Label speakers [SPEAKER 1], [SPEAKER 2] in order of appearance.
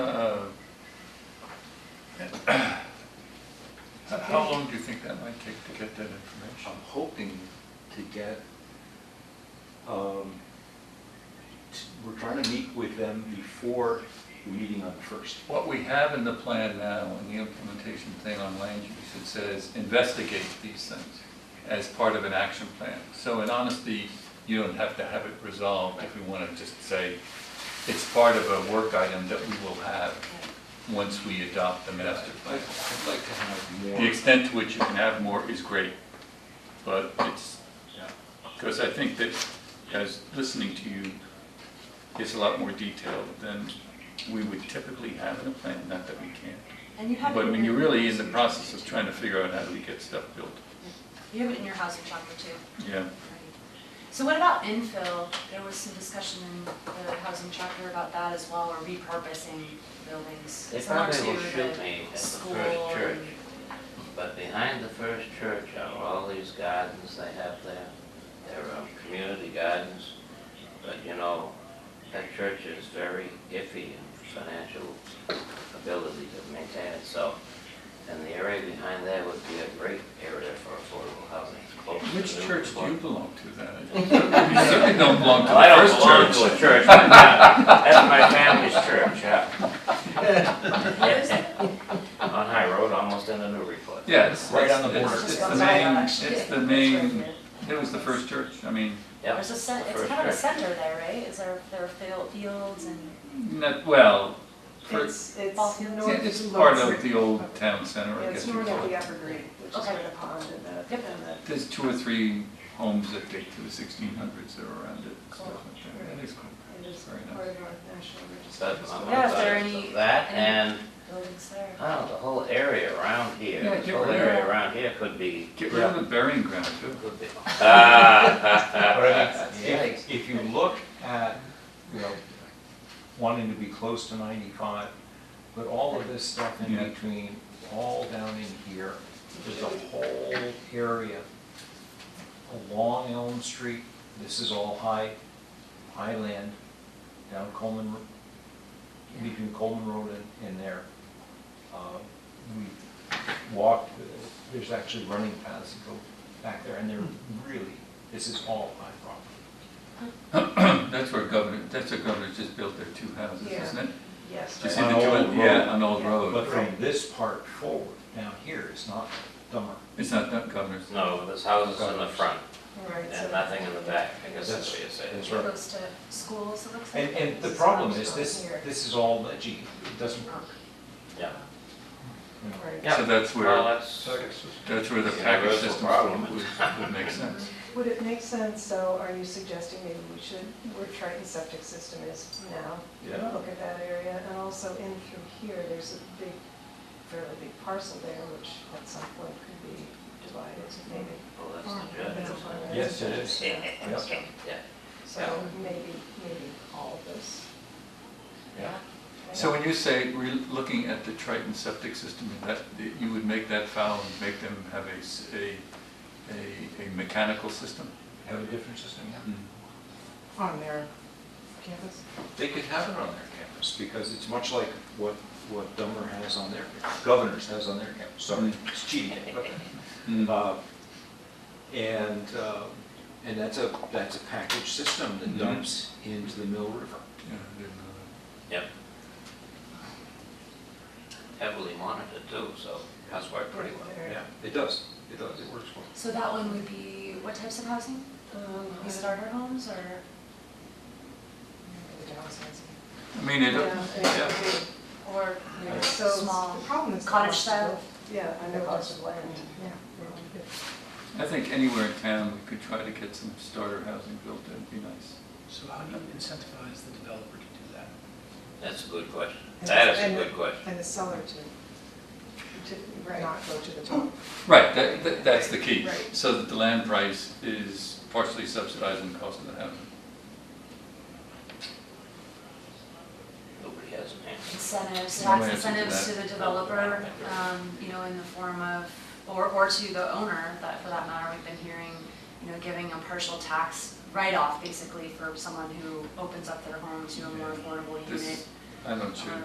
[SPEAKER 1] Uh, How long do you think that might take to get that information?
[SPEAKER 2] I'm hoping to get, um, t- we're trying to meet with them before the meeting on the first.
[SPEAKER 1] What we have in the plan now, in the implementation thing on land use, it says investigate these things as part of an action plan. So in honesty, you don't have to have it resolved if we want to just say it's part of a work item that we will have once we adopt the master plan.
[SPEAKER 2] I'd I'd like to have more.
[SPEAKER 1] The extent to which you can have more is great, but it's, because I think that as listening to you, it's a lot more detailed than we would typically have in a plan, not that we can't.
[SPEAKER 3] And you have it.
[SPEAKER 1] But I
[SPEAKER 3] in
[SPEAKER 1] mean,
[SPEAKER 3] your-
[SPEAKER 1] you're really in the process of trying to figure out how do we get stuff built.
[SPEAKER 3] You have it in your housing chapter too.
[SPEAKER 1] Yeah,
[SPEAKER 3] So what about infill? There was some discussion in the housing chapter about that as well, or repurposing buildings.
[SPEAKER 4] They
[SPEAKER 3] similar
[SPEAKER 4] probably will
[SPEAKER 3] to
[SPEAKER 4] shoot
[SPEAKER 3] the
[SPEAKER 4] me at the
[SPEAKER 3] School.
[SPEAKER 4] first church,
[SPEAKER 3] and-
[SPEAKER 4] but behind the first church are all these gardens they have there. They're um, community gardens, but you know, that church is very iffy in financial ability to maintain it, so. And the area behind there would be a great area for affordable housing. Close to
[SPEAKER 1] which
[SPEAKER 4] the
[SPEAKER 1] church do you
[SPEAKER 4] water.
[SPEAKER 1] belong to then? You certainly don't belong to
[SPEAKER 4] Well, I
[SPEAKER 1] the
[SPEAKER 4] don't belong
[SPEAKER 1] first church.
[SPEAKER 4] to a church, but uh, that's my family's church, yeah. On High Road, almost in the new report.
[SPEAKER 1] Yes.
[SPEAKER 2] Right on the border.
[SPEAKER 1] It's
[SPEAKER 3] Just
[SPEAKER 1] the
[SPEAKER 3] outside
[SPEAKER 1] main,
[SPEAKER 3] of that.
[SPEAKER 1] it's the
[SPEAKER 3] It's
[SPEAKER 1] main,
[SPEAKER 3] right
[SPEAKER 1] it was the first church, I mean,
[SPEAKER 4] Yep,
[SPEAKER 3] There's a, cen-
[SPEAKER 4] the
[SPEAKER 3] it's
[SPEAKER 4] first
[SPEAKER 3] kind of a
[SPEAKER 4] church.
[SPEAKER 3] center there, right? Is there, there are field- fields and
[SPEAKER 1] not, well, for-
[SPEAKER 5] It's, it's
[SPEAKER 3] Ballfield.
[SPEAKER 5] north.
[SPEAKER 1] Yeah, it's part of the old town center,
[SPEAKER 5] Yeah,
[SPEAKER 1] I
[SPEAKER 5] it's
[SPEAKER 1] guess. you'd
[SPEAKER 5] north of
[SPEAKER 1] call
[SPEAKER 5] the
[SPEAKER 1] it.
[SPEAKER 5] Evergreen, which is
[SPEAKER 3] Okay.
[SPEAKER 5] where the pond and that.
[SPEAKER 4] And that-
[SPEAKER 1] There's two or three homes that date to the sixteen hundreds that are around it, and stuff like that. That is cool.
[SPEAKER 5] It is
[SPEAKER 1] Very nice.
[SPEAKER 5] part of our national register.
[SPEAKER 4] But on
[SPEAKER 3] Yeah,
[SPEAKER 4] one
[SPEAKER 3] if there are
[SPEAKER 4] side
[SPEAKER 3] any-
[SPEAKER 4] of that
[SPEAKER 3] any-
[SPEAKER 4] and,
[SPEAKER 3] buildings there.
[SPEAKER 4] oh, the whole area around here,
[SPEAKER 1] Yeah,
[SPEAKER 4] this
[SPEAKER 1] get
[SPEAKER 4] whole
[SPEAKER 1] rid of
[SPEAKER 4] area
[SPEAKER 3] it.
[SPEAKER 4] around here could be.
[SPEAKER 1] Get rid of the burying ground too.
[SPEAKER 4] Could be.
[SPEAKER 2] But I
[SPEAKER 4] Ah.
[SPEAKER 2] mean,
[SPEAKER 4] Yikes.
[SPEAKER 2] if, if you look at, you know, wanting to be close to ninety-five, but all of this stuff in
[SPEAKER 1] Yeah.
[SPEAKER 2] between, all down in here, there's a whole area along Elm Street, this is all high, high land, down Coleman, Ro- between Coleman Road and, and there. Uh, We walked, uh, there's actually running paths that go back there, and they're really, this is all high property.
[SPEAKER 1] That's where governor, that's where governor just built their two houses,
[SPEAKER 5] Yeah.
[SPEAKER 1] isn't it?
[SPEAKER 5] Yes.
[SPEAKER 1] You
[SPEAKER 2] Just
[SPEAKER 1] see the
[SPEAKER 2] On Old
[SPEAKER 1] joint,
[SPEAKER 2] Road.
[SPEAKER 1] yeah, on Old
[SPEAKER 5] Yeah.
[SPEAKER 1] Road.
[SPEAKER 2] But from this part forward, down here is not dumber.
[SPEAKER 1] It's not that governor's.
[SPEAKER 4] No, there's houses in the front
[SPEAKER 5] Right, so-
[SPEAKER 4] and nothing in the back, I guess that's what you're saying.
[SPEAKER 2] That's
[SPEAKER 3] It
[SPEAKER 2] right.
[SPEAKER 3] goes to schools, it looks like.
[SPEAKER 2] And, and the
[SPEAKER 3] This is
[SPEAKER 2] problem
[SPEAKER 3] not
[SPEAKER 2] is, this,
[SPEAKER 3] here.
[SPEAKER 2] this is all ledgy, it doesn't work.
[SPEAKER 4] Yeah.
[SPEAKER 2] you know.
[SPEAKER 5] Right.
[SPEAKER 4] Yeah.
[SPEAKER 1] So that's
[SPEAKER 4] Well,
[SPEAKER 1] where,
[SPEAKER 4] that's, oh,
[SPEAKER 1] that's where the
[SPEAKER 4] Yeah,
[SPEAKER 1] package
[SPEAKER 4] that's the
[SPEAKER 1] system
[SPEAKER 4] problem.
[SPEAKER 1] would, would make sense.
[SPEAKER 5] Would it make sense, so are you suggesting maybe we should, where Triton Septic System is now?
[SPEAKER 2] Yeah.
[SPEAKER 5] Look at that area, and also in through here, there's a big, fairly big parcel there, which at some point could be divided, maybe.
[SPEAKER 4] well, that's the judge.
[SPEAKER 5] That's a fine area.
[SPEAKER 2] Yes, it is.
[SPEAKER 5] Yeah.
[SPEAKER 2] Yep.
[SPEAKER 4] Yeah.
[SPEAKER 5] So maybe, maybe all of this.
[SPEAKER 2] Yeah.
[SPEAKER 1] So when you say we're looking at the Triton septic system, that, you would make that foul and make them have a, s- a- a- a mechanical system?
[SPEAKER 2] Have a different system, yeah.
[SPEAKER 4] Mm-hmm.
[SPEAKER 5] On their campus?
[SPEAKER 2] They could have it on their campus, because it's much like what, what Dummer has on their, Governors has on their campus, sorry,
[SPEAKER 1] Mm.
[SPEAKER 2] it's cheating.
[SPEAKER 1] Mm.
[SPEAKER 2] Uh, And, uh, and that's a, that's a package system that
[SPEAKER 1] Mhm.
[SPEAKER 2] dumps into the Mill River.
[SPEAKER 1] Yeah, I didn't know that.
[SPEAKER 4] Yep. Heavily monitored too, so that's worked pretty well.
[SPEAKER 2] Yeah, it does, it does, it works well.
[SPEAKER 3] So that one would be, what types of housing?
[SPEAKER 5] Um,
[SPEAKER 3] Is it starter homes or? The downsides.
[SPEAKER 1] I mean, it,
[SPEAKER 5] Yeah, it would be.
[SPEAKER 3] Or you know,
[SPEAKER 5] So
[SPEAKER 3] small.
[SPEAKER 5] the problem is the
[SPEAKER 3] cottage
[SPEAKER 5] cost of
[SPEAKER 3] style.
[SPEAKER 5] land. Yeah, and the cost of land, yeah.
[SPEAKER 1] I think anywhere in town, we could try to get some starter housing built, that'd be nice.
[SPEAKER 6] So how do you incentivize the developer to do that?
[SPEAKER 4] That's a good question.
[SPEAKER 5] And-
[SPEAKER 4] That is a
[SPEAKER 5] and-
[SPEAKER 4] good question.
[SPEAKER 5] And the seller to, to not go to the top.
[SPEAKER 1] Right, that, that, that's the key,
[SPEAKER 5] Right.
[SPEAKER 1] so that the land price is partially subsidizing the cost of the housing.
[SPEAKER 4] Nobody has an answer.
[SPEAKER 3] incentives,
[SPEAKER 1] No
[SPEAKER 3] tax
[SPEAKER 1] answer to
[SPEAKER 3] incentives
[SPEAKER 1] that.
[SPEAKER 3] to the developer, um, you know, in the form of, or, or to the owner, that, for that matter, we've been hearing, you know, giving a partial tax write-off basically for someone who opens up their home to a more affordable
[SPEAKER 1] This-
[SPEAKER 3] unit.
[SPEAKER 1] I'm not sure.